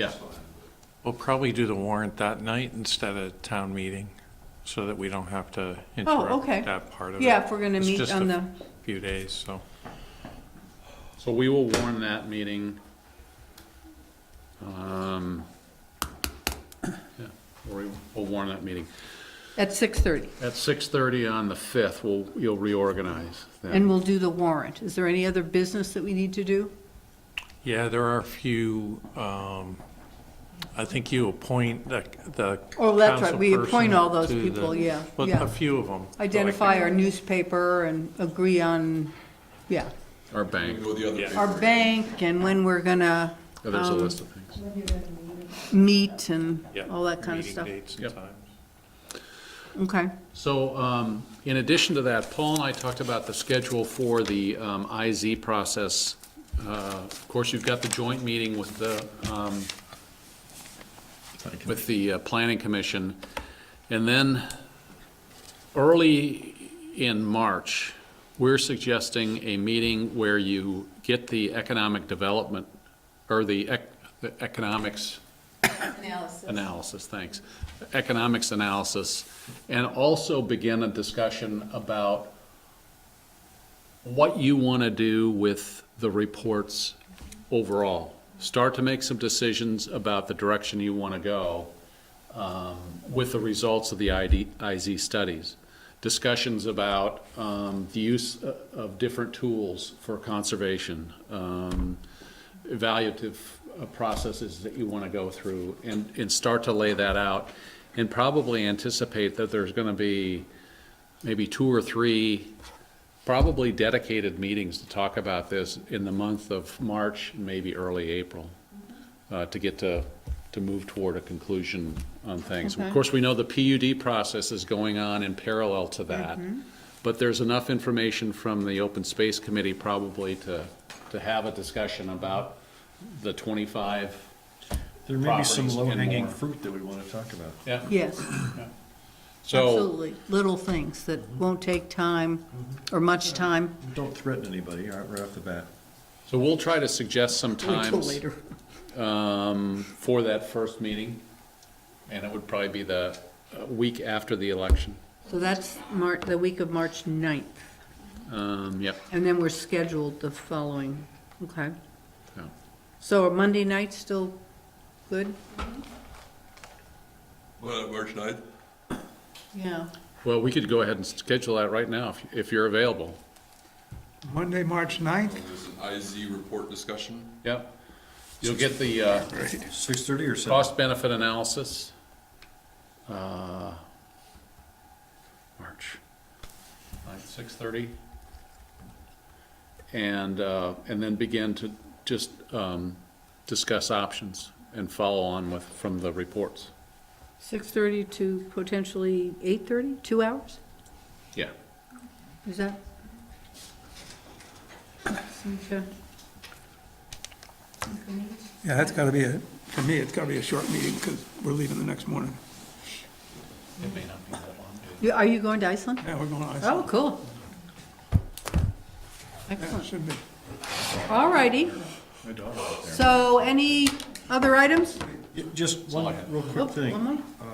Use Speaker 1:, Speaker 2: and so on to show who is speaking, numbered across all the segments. Speaker 1: Yeah,
Speaker 2: We'll probably do the warrant that night instead of town meeting, so that we don't have to
Speaker 3: Oh, okay.
Speaker 2: interrupt that part of it.
Speaker 3: Yeah, if we're gonna
Speaker 2: It's
Speaker 3: meet
Speaker 2: just
Speaker 3: on
Speaker 2: a
Speaker 3: the-
Speaker 2: Few days, so.
Speaker 1: so we will warn that meeting. Um, yeah, we- We'll warn that meeting.
Speaker 3: At 6:30,
Speaker 1: At 6:30 on the 5th, we'll, you'll reorganize
Speaker 3: and
Speaker 1: then.
Speaker 3: we'll do the warrant. Is there any other business that we need to do?
Speaker 2: Yeah, there are a few, um, I think you appoint the, the.
Speaker 3: Oh, that's right, we
Speaker 2: council
Speaker 3: appoint
Speaker 2: person
Speaker 3: all those
Speaker 2: to the-
Speaker 3: people, yeah,
Speaker 2: But
Speaker 3: yeah.
Speaker 2: a few of them. Oh,
Speaker 3: Identify our newspaper and agree on, yeah,
Speaker 1: Our bank,
Speaker 4: Go the other
Speaker 2: Yeah.
Speaker 4: way.
Speaker 3: our bank and when we're gonna
Speaker 1: Oh,
Speaker 3: Um,
Speaker 1: there's a list of things.
Speaker 3: meet and
Speaker 2: Yeah,
Speaker 3: all that kind of stuff.
Speaker 2: Meeting dates
Speaker 1: Yep.
Speaker 2: and times.
Speaker 3: Okay,
Speaker 1: So um, in addition to that, Paul and I talked about the schedule for the um, IZ process. Uh, Of course, you've got the joint meeting with the um, with the uh, Planning Commission. And then, early in March, we're suggesting a meeting where you get the economic development, or the ec- the economics. Analysis. Analysis, thanks. Economics analysis, and also begin a discussion about what you want to do with the reports overall. Start to make some decisions about the direction you want to go um, with the results of the ID IZ studies. Discussions about um, the use o- of different tools for conservation, um, evaluative uh, processes that you want to go through, and, and start to lay that out, and probably anticipate that there's going to be maybe two or three probably dedicated meetings to talk about this in the month of March, maybe early April, uh, to get to, to move toward a conclusion on things. Of
Speaker 3: Okay.
Speaker 1: course, we know the PUD process is going on in parallel to that, but there's enough information from the Open Space Committee probably to, to have a discussion about the 25,
Speaker 5: There may be some
Speaker 1: properties and
Speaker 5: low-hanging
Speaker 1: more.
Speaker 5: fruit that we want to talk about.
Speaker 1: yeah?
Speaker 3: yes,
Speaker 1: So,
Speaker 3: absolutely. Little things that won't take time or much time
Speaker 5: Don't threaten anybody right right off the bat.
Speaker 1: so we'll try to suggest some
Speaker 3: until
Speaker 1: times.
Speaker 3: later.
Speaker 1: um, for that first meeting, and it would probably be the uh, week after the election.
Speaker 3: So that's Mar, the week of March 9th,
Speaker 1: Um, Yep.
Speaker 3: and then we're scheduled the following, okay?
Speaker 1: so.
Speaker 3: So are Monday nights still good?
Speaker 4: Well, March ninth,
Speaker 3: Yeah.
Speaker 1: Well, we could go ahead and schedule that right now if- if you're available.
Speaker 6: Monday, March 9th?
Speaker 4: there's an IZ report discussion.
Speaker 1: Yep. You'll get the uh,
Speaker 5: Six-thirty or seven?
Speaker 1: cost benefit analysis. uh, March, like 6:30. And, uh, and then begin to just um, discuss options and follow on with, from the reports.
Speaker 3: 6:30 to potentially 8:30, two hours?
Speaker 1: Yeah.
Speaker 3: Is that? Seems to-
Speaker 6: Yeah, that's gotta be a, for me, it's gotta be a short meeting, because we're leaving the next morning.
Speaker 1: It may not be that long.
Speaker 3: You- Are you going to Iceland?
Speaker 6: Yeah, we're going to
Speaker 3: Oh,
Speaker 6: Iceland.
Speaker 3: cool.
Speaker 6: Yeah, it
Speaker 3: Excellent.
Speaker 6: should be.
Speaker 3: All righty. So any other items?
Speaker 5: Yeah, Just one real quick
Speaker 3: Oh,
Speaker 5: thing.
Speaker 3: one more?
Speaker 5: uh,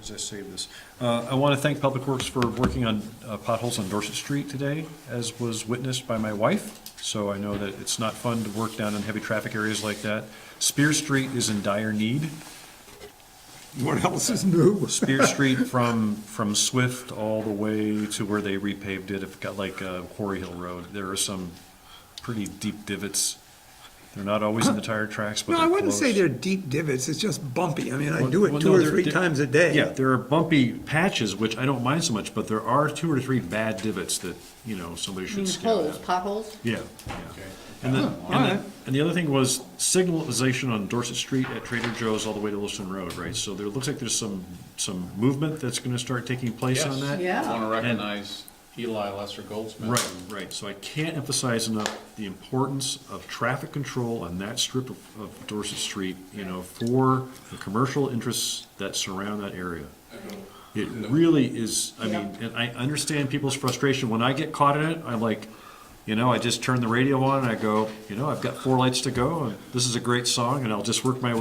Speaker 5: As I save this, Uh, I want to thank Public Works for working on uh, potholes on Dorset Street today, as was witnessed by my wife. So I know that it's not fun to work down in heavy traffic areas like that. Spear Street is in dire need.
Speaker 6: What else is new?
Speaker 5: Spear Street from, from Swift all the way to where they repaved it, if got like uh, Quarry Hill Road, there are some pretty deep divots. They're not always in the tire tracks, but
Speaker 6: No,
Speaker 5: they're
Speaker 6: I wouldn't say
Speaker 5: close.
Speaker 6: they're deep divots, it's just bumpy. I mean, I
Speaker 5: Well-
Speaker 6: do
Speaker 5: well,
Speaker 6: it two
Speaker 5: no,
Speaker 6: or
Speaker 5: they're-
Speaker 6: three
Speaker 5: they're-
Speaker 6: times a day.
Speaker 5: Yeah, there are bumpy patches, which I don't mind so much, but there are two or three bad divots that, you know, somebody
Speaker 3: I mean,
Speaker 5: should scout
Speaker 3: holes,
Speaker 5: out.
Speaker 3: potholes?
Speaker 5: Yeah, yeah. And then, and
Speaker 6: alright.
Speaker 5: then, and the other thing was signalization on Dorset Street at Trader Joe's all the way to Lewiston Road, right? So there looks like there's some, some movement that's gonna start taking place on that.
Speaker 3: Yeah.
Speaker 1: Want to recognize Eli Lesser Goldsmith.
Speaker 5: Right, right, so I can't emphasize enough the importance of traffic control on that strip of, of Dorset Street, you know, for the commercial interests that surround that area. It really is, I mean, and I understand people's frustration, when I get caught in it, I'm like, you know, I just turn the radio on and I go, you know, I've got four lights to go, and this is a great song, and I'll just work my way.